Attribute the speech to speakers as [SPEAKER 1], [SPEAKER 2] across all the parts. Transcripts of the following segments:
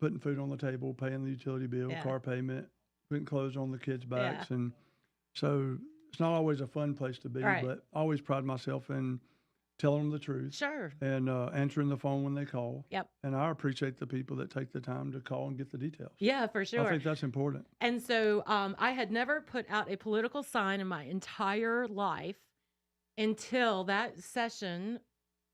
[SPEAKER 1] putting food on the table, paying the utility bill,
[SPEAKER 2] Yeah.
[SPEAKER 1] car payment, putting clothes on the kids'
[SPEAKER 2] Yeah.
[SPEAKER 1] backs, and so it's not always a fun place to be.
[SPEAKER 2] Right.
[SPEAKER 1] But I always pride myself in telling them the truth
[SPEAKER 2] Sure.
[SPEAKER 1] and uh, answering the phone when they call.
[SPEAKER 2] Yep.
[SPEAKER 1] And I appreciate the people that take the time to call and get the details.
[SPEAKER 2] Yeah, for
[SPEAKER 1] I
[SPEAKER 2] sure.
[SPEAKER 1] think that's important.
[SPEAKER 2] And so um, I had never put out a political sign in my entire life until that session.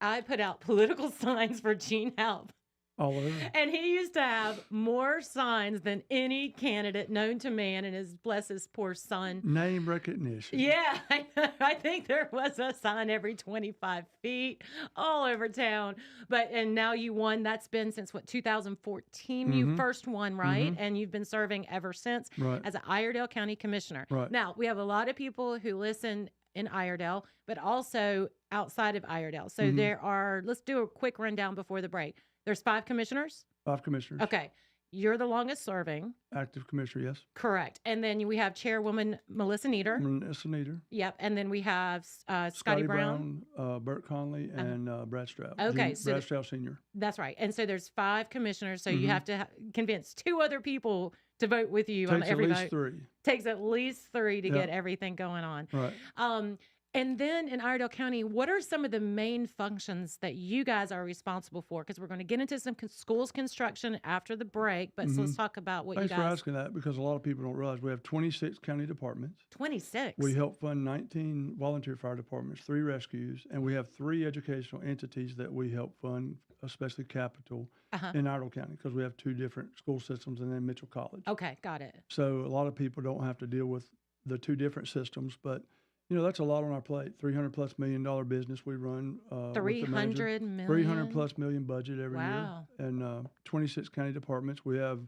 [SPEAKER 2] I put out political signs for Gene Help.
[SPEAKER 1] All over.
[SPEAKER 2] And he used to have more signs than any candidate known to man and his bless his poor son.
[SPEAKER 1] Name recognition.
[SPEAKER 2] Yeah, I, know. I think there was a sign every 25 feet all over town. But and now you won. That's been since what 2014 you
[SPEAKER 1] Mhm.
[SPEAKER 2] first won, right? And you've been serving ever since
[SPEAKER 1] Right.
[SPEAKER 2] as an Iredale County Commissioner.
[SPEAKER 1] Right.
[SPEAKER 2] Now, we have a lot of people who listen in Iredale, but also outside of Iredale. So
[SPEAKER 1] Mhm.
[SPEAKER 2] there are let's do a quick rundown before the break. There's five commissioners.
[SPEAKER 1] Five commissioners.
[SPEAKER 2] Okay. You're the longest serving.
[SPEAKER 1] Active commissioner, yes.
[SPEAKER 2] Correct. And then we have Chairwoman Melissa Nieder.
[SPEAKER 1] Melissa Nieder.
[SPEAKER 2] Yep. And then we have uh, Scotty,
[SPEAKER 1] Scotty
[SPEAKER 2] Brown.
[SPEAKER 1] Brown, uh, Burt Conley,
[SPEAKER 2] Uh-huh.
[SPEAKER 1] and uh, Brad Stroud.
[SPEAKER 2] Okay,
[SPEAKER 1] Jun-
[SPEAKER 2] so
[SPEAKER 1] Brad
[SPEAKER 2] the-
[SPEAKER 1] Stroud Senior.
[SPEAKER 2] That's right. And so there's five commissioners. So you
[SPEAKER 1] Mhm.
[SPEAKER 2] have to ha- convince two other people to vote with you on
[SPEAKER 1] Takes at
[SPEAKER 2] every
[SPEAKER 1] least
[SPEAKER 2] vote.
[SPEAKER 1] three.
[SPEAKER 2] Takes at least three to
[SPEAKER 1] Yeah.
[SPEAKER 2] get everything going on.
[SPEAKER 1] Right.
[SPEAKER 2] Um, and then in Iredell County, what are some of the main functions that you guys are responsible for? Because we're going to get into some con- schools construction after the break, but so let's talk about what
[SPEAKER 1] Mm-hmm. Thanks
[SPEAKER 2] you
[SPEAKER 1] for
[SPEAKER 2] guys.
[SPEAKER 1] asking that because a lot of people don't realize we have 26 county departments.
[SPEAKER 2] 26.
[SPEAKER 1] We help fund 19 volunteer fire departments, three rescues, and we have three educational entities that we help fund, especially Capital
[SPEAKER 2] Uh-huh.
[SPEAKER 1] in Idle County because we have two different school systems and then Mitchell College.
[SPEAKER 2] Okay, got it.
[SPEAKER 1] So a lot of people don't have to deal with the two different systems, but you know that's a lot on our plate. 300 plus million dollar business we run. Uh, with the
[SPEAKER 2] Three
[SPEAKER 1] manager.
[SPEAKER 2] hundred million.
[SPEAKER 1] 300 plus million budget every
[SPEAKER 2] Wow.
[SPEAKER 1] year and uh, 26 county departments we have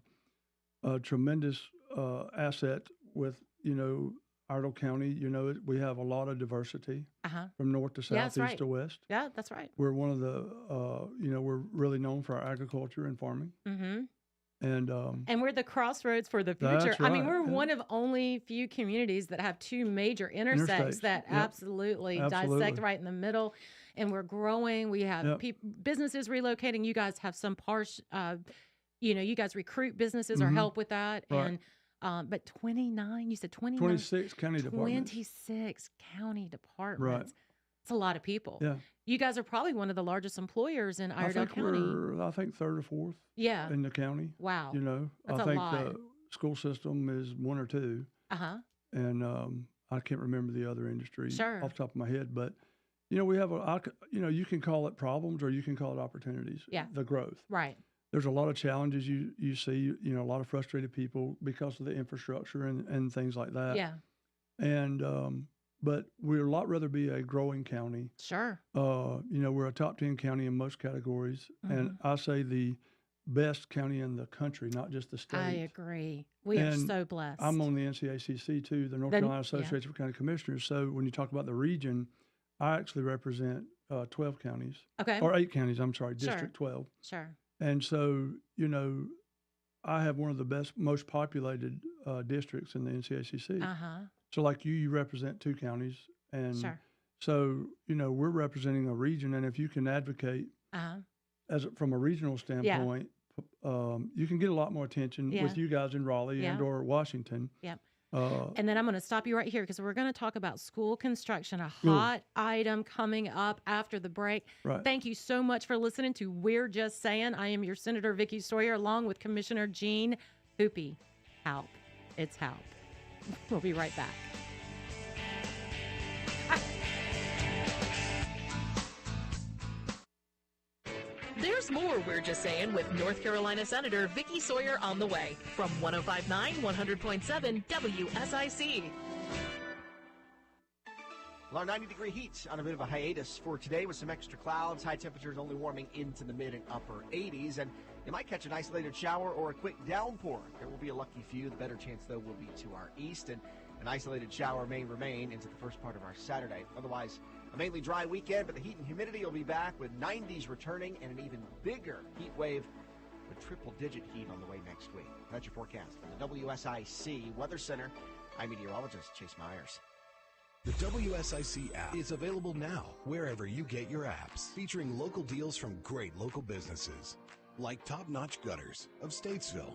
[SPEAKER 1] a tremendous uh, asset with you know Idle County you know it- we have a lot of diversity
[SPEAKER 2] Uh huh.
[SPEAKER 1] from north to south
[SPEAKER 2] Yeah, that's
[SPEAKER 1] east
[SPEAKER 2] right.
[SPEAKER 1] to west
[SPEAKER 2] Yeah, that's right.
[SPEAKER 1] we're one of the uh, you know we're really known for our agriculture and farming
[SPEAKER 2] Mm-hmm.
[SPEAKER 1] and um,
[SPEAKER 2] And we're the crossroads for the
[SPEAKER 1] That's
[SPEAKER 2] future. I mean,
[SPEAKER 1] right,
[SPEAKER 2] we're
[SPEAKER 1] yeah.
[SPEAKER 2] one of only few communities that have two major intersects
[SPEAKER 1] Interstates,
[SPEAKER 2] that
[SPEAKER 1] yep.
[SPEAKER 2] absolutely, dissect
[SPEAKER 1] Absolutely.
[SPEAKER 2] right in the middle. And we're growing. We have
[SPEAKER 1] Yep.
[SPEAKER 2] peop businesses relocating. You guys have some parsh, uh, you know, you guys recruit businesses or
[SPEAKER 1] Mhm.
[SPEAKER 2] help with that.
[SPEAKER 1] Right.
[SPEAKER 2] And um, but 29, you said 29,
[SPEAKER 1] 26 county departments
[SPEAKER 2] 26 county departments. It's a lot of people.
[SPEAKER 1] Yeah.
[SPEAKER 2] You guys are probably one of the largest employers in
[SPEAKER 1] I
[SPEAKER 2] Iredell
[SPEAKER 1] think
[SPEAKER 2] County.
[SPEAKER 1] we're I think third or fourth
[SPEAKER 2] Yeah.
[SPEAKER 1] in the county
[SPEAKER 2] Wow.
[SPEAKER 1] you know
[SPEAKER 2] That's
[SPEAKER 1] I
[SPEAKER 2] a
[SPEAKER 1] think
[SPEAKER 2] lot.
[SPEAKER 1] the school system is one or two
[SPEAKER 2] Uh huh.
[SPEAKER 1] and um, I can't remember the other industry
[SPEAKER 2] Sure.
[SPEAKER 1] off the top of my head, but you know, we have a, I c- you know, you can call it problems or you can call it opportunities.
[SPEAKER 2] Yeah.
[SPEAKER 1] The growth.
[SPEAKER 2] Right.
[SPEAKER 1] There's a lot of challenges you, you see, you, know, a lot of frustrated people because of the infrastructure and, and things like that.
[SPEAKER 2] yeah.
[SPEAKER 1] And, um, but we'd a lot rather be a growing county.
[SPEAKER 2] Sure.
[SPEAKER 1] Uh, you know, we're a top 10 county in most categories. And
[SPEAKER 2] Mm-hmm.
[SPEAKER 1] I say the best county in the country, not just the state.
[SPEAKER 2] I agree. We are
[SPEAKER 1] And
[SPEAKER 2] so blessed.
[SPEAKER 1] I'm on the NCACC too, the North
[SPEAKER 2] Then-
[SPEAKER 1] Carolina
[SPEAKER 2] yeah.
[SPEAKER 1] Association of County Commissioners. So when you talk about the region, I actually represent uh, 12 counties
[SPEAKER 2] okay.
[SPEAKER 1] or eight counties. I'm sorry,
[SPEAKER 2] Sure.
[SPEAKER 1] District 12.
[SPEAKER 2] sure.
[SPEAKER 1] And so you know, I have one of the best, most populated uh, districts in the NCACC.
[SPEAKER 2] Uh huh.
[SPEAKER 1] so like you, you represent two counties, and
[SPEAKER 2] Sure.
[SPEAKER 1] so you know we're representing a region. And if you can advocate
[SPEAKER 2] Uh huh.
[SPEAKER 1] as a- from a regional standpoint, p- um, you can get a lot more attention
[SPEAKER 2] Yeah.
[SPEAKER 1] with you guys in Raleigh
[SPEAKER 2] Yeah.
[SPEAKER 1] and or Washington.
[SPEAKER 2] Yep.
[SPEAKER 1] Uh,
[SPEAKER 2] And then I'm going to stop you right here because we're going to talk about school construction, a
[SPEAKER 1] Cool.
[SPEAKER 2] hot item coming up after the break.
[SPEAKER 1] right.
[SPEAKER 2] Thank you so much for listening to We're Just Saying. I am your Senator Vicky Sawyer along with Commissioner Gene Hoopy. Help. It's help. We'll be right back.
[SPEAKER 3] There's more We're Just Saying with North Carolina Senator Vicky Sawyer on the way from 1059 100.7 WSIC.
[SPEAKER 4] Well, our 90 degree heat on a bit of a hiatus for today with some extra clouds. High temperatures only warming into the mid and upper 80s, and you might catch an isolated shower or a quick downpour. There will be a lucky few. The better chance, though, will be to our east, and an isolated shower may remain into the first part of our Saturday. Otherwise, a mainly dry weekend, but the heat and humidity will be back with 90s returning and an even bigger heat wave with triple digit heat on the way next week. That's your forecast from the WSIC Weather Center. I'm meteorologist Chase Myers.
[SPEAKER 5] The WSIC app is available now wherever you get your apps, featuring local deals from great local businesses. like top notch gutters of Statesville,